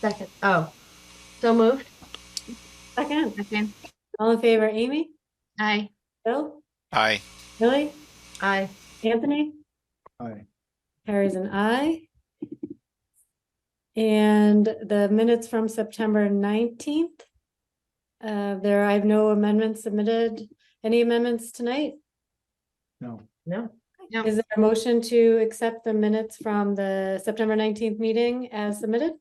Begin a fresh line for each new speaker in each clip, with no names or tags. Second, oh, so moved?
Second,
Okay.
all in favor, Amy,
Aye.
Bill,
Aye.
Billy,
Aye.
Anthony,
Aye.
Harry's an aye. And the minutes from September nineteenth. Uh, there, I have no amendments submitted. Any amendments tonight?
No.
No. No.
Is there a motion to accept the minutes from the September nineteenth meeting as submitted?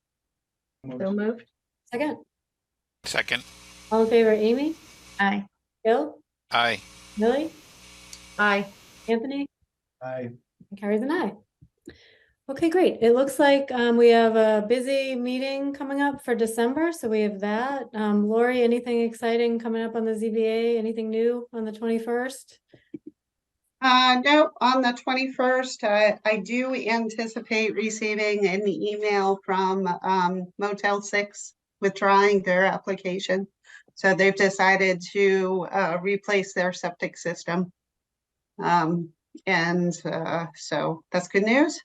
So moved?
Second,
Second.
all in favor, Amy,
Aye.
Bill,
Aye.
Billy,
Aye.
Anthony?
Aye.
Carries an eye. Okay, great. It looks like um, we have a busy meeting coming up for December, so we have that. Um, Lori, anything exciting coming up on the ZBA? Anything new on the twenty-first?
Uh, no, on the twenty-first, I, I do anticipate receiving an email from, um, Motel Six withdrawing their application. So they've decided to, uh, replace their septic system. Um, and, uh, so that's good news.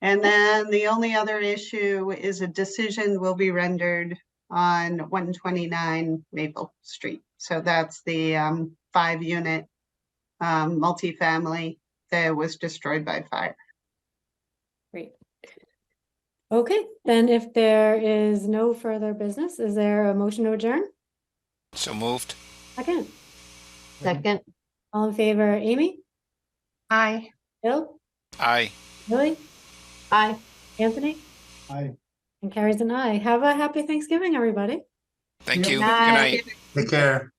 And then the only other issue is a decision will be rendered on one twenty-nine Maple Street. So that's the, um, five-unit um, multifamily that was destroyed by fire.
Great. Okay, then if there is no further business, is there a motion to adjourn?
So moved.
Second,
Second?
all in favor, Amy,
Aye.
Bill,
Aye.
Lily,
Aye.
Anthony,
Aye.
and Carrie's an eye. Have a happy Thanksgiving, everybody.
Thank
Yeah.
you. Good
Night.
night.
Take care.